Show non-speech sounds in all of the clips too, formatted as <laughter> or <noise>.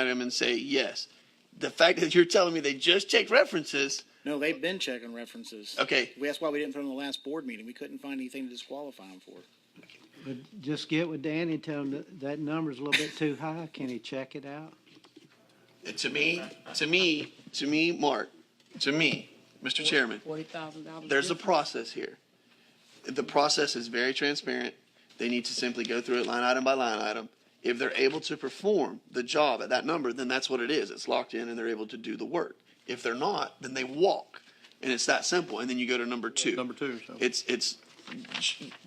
item and say yes. The fact that you're telling me they just checked references, No, they've been checking references. okay, We, that's why we didn't throw them in the last board meeting. We couldn't find anything to disqualify them for. But just get with Danny and tell him that that number's a little bit too high. Can he check it out? to me, to me, to me, Mark, to me, Mr. Chairman, Forty thousand dollars. there's a process here. The process is very transparent. They need to simply go through it line item by line item. If they're able to perform the job at that number, then that's what it is. It's locked in and they're able to do the work. If they're not, then they walk. And it's that simple. And then you go to number two. Number two, so. It's, it's,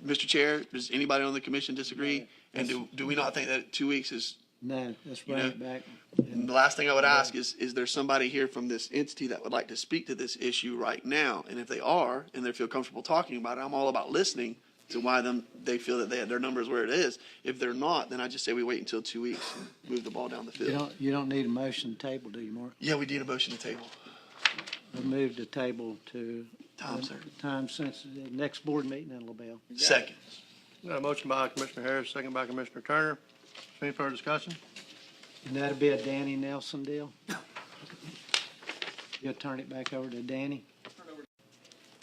Mr. Chair, does anybody on the commission disagree? And do, do we not think that two weeks is No, let's bring know- it back. and the last thing I would ask is, is there somebody here from this entity that would like to speak to this issue right now? And if they are, and they feel comfortable talking about it, I'm all about listening to why them, they feel that they, their number is where it is. If they're not, then I just say we wait until two weeks and move the ball down the You field. don't, you don't need a motion to table, do you, Mark? Yeah, we need a motion to table. We moved the table to. Time, sir. Time sensitive, next board meeting in LaBelle. Second. Got a motion by Commissioner Harris, second by Commissioner Turner. Any further discussion? And that'll be a Danny Nelson deal? <laughs> You'll turn it back over to Danny?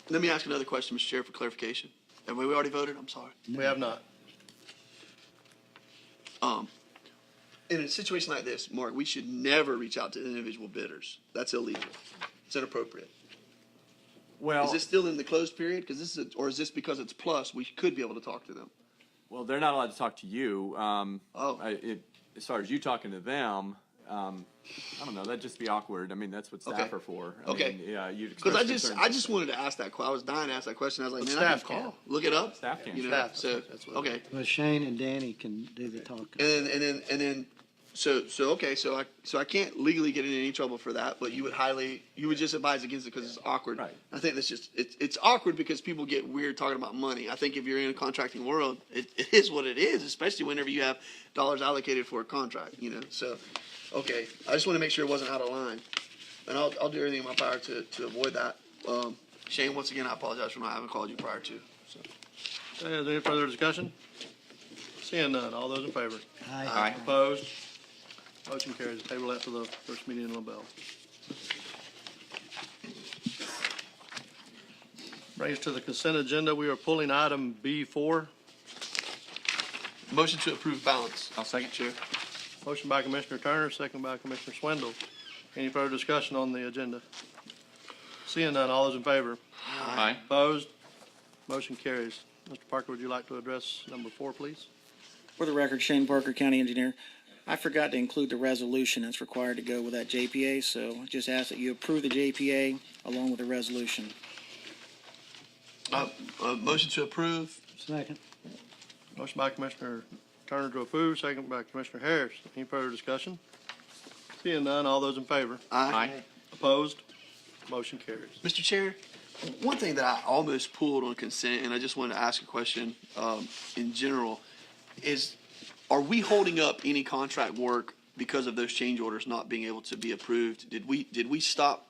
Let me ask another question, Mr. Chair, for clarification. Have we already voted? I'm sorry. We have not. Um, in a situation like this, Mark, we should never reach out to individual bidders. That's illegal. It's inappropriate. Is Well, this still in the closed period? Because this is, a- or is this because it's plus, we could be able to talk to them? well, they're not allowed to talk to you. Um, Oh. I, it, as far as you talking to them, um, I don't know. That'd just be awkward. I mean, that's what staff Okay. are for. I Okay. Mean, yeah, you'd Because I express just, concerns. I just wanted to ask that que, I was dying to ask that question, I was like, But man, I can staff can. call, look it up. Staff can. You know, Staff, so, that's what- okay, Well, Shane and Danny can do the talking. and then, and then, and then, so, so, okay, so I, so I can't legally get in any trouble for that, but you would highly, you would just advise against it because it's awkward. Right. I think that's just, it's, it's awkward because people get weird talking about money, I think if you're in a contracting world, it, it is what it is, especially whenever you have dollars allocated for a contract, you know, so, okay, I just want to make sure it wasn't out of line. and I'll, I'll do everything in my power to, to avoid that. Um, Shane, once again, I apologize for not having called you prior to. So. Okay, Uh, Is there any further discussion? Seeing none, all those in favor? Aye. Opposed? Motion carries. Table that for the first meeting in LaBelle. Brings us to the consent agenda. We are pulling item B four. Motion to approve balance. I'll second. Chair. Motion by Commissioner Turner, second by Commissioner Swindle. Any further discussion on the agenda? Seeing none, all those in favor? Aye. Opposed? Motion carries. Mr. Parker, would you like to address number four, please? For the record, Shane Parker, county engineer, I forgot to include the resolution that's required to go with that JPA, so I just ask that you approve the JPA along with the resolution. Uh, uh, motion to approve. Second. Motion by Commissioner Turner to approve, second by Commissioner Harris. Any further discussion? Seeing none, all those in favor? Aye. Opposed? Motion carries. Mr. Chair, one thing that I almost pulled on consent, and I just wanted to ask a question um, in general, is are we holding up any contract work because of those change orders not being able to be approved? Did we did we stop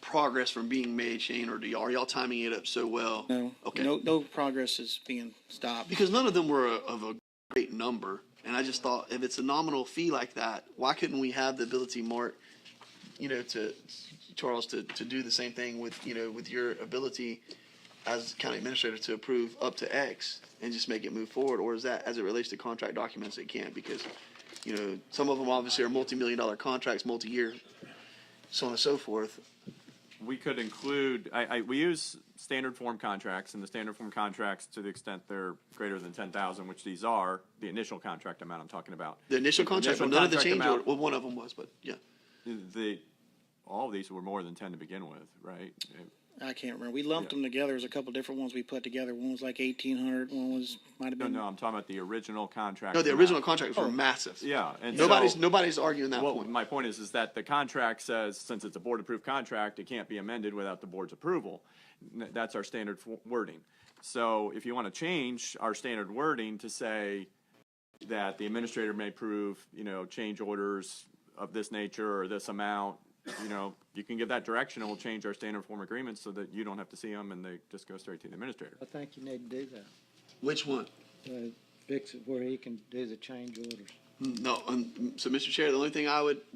progress from being made, Shane, or do y'all, are y'all timing it up so well? No, Okay. no, no progress is being stopped. because none of them were a, of a great number. And I just thought, if it's a nominal fee like that, why couldn't we have the ability, Mark, you know, to Charles, to, to do the same thing with you know with your ability as county administrator to approve up to X and just make it move forward, or is that as it relates to contract documents, it can't because you know some of them obviously are multi-million dollar contracts, multi-year, so on and so forth. We could include. I, I we use standard form contracts, and the standard form contracts, to the extent they're greater than ten thousand, which these are, the initial contract amount I'm talking about. The initial contract, Initial but none of the contract change amount. order. Well, one of them was, but yeah. The all of these were more than ten to begin with, right? I can't remember. We lumped them together. There's a couple different ones we put together. One was like eighteen hundred, one was, might have No, been. no, I'm talking about the original contract. No, the amount. original contracts Oh. were massive. Yeah, and Nobody's so- nobody's arguing that Well, point. my point is, is that the contract says, since it's a board-approved contract, it can't be amended without the board's approval. N- That's our standard fo- wording. So if you want to change our standard wording to say that the administrator may approve, you know, change orders of this nature or this amount, you know, you can give that direction and we'll change our standard form agreements so that you don't have to see them and they just go straight to the administrator. I think you need to do that. Which one? Uh, Fix it where he can do the change orders. No, um, so Mr. Chair, the only thing I would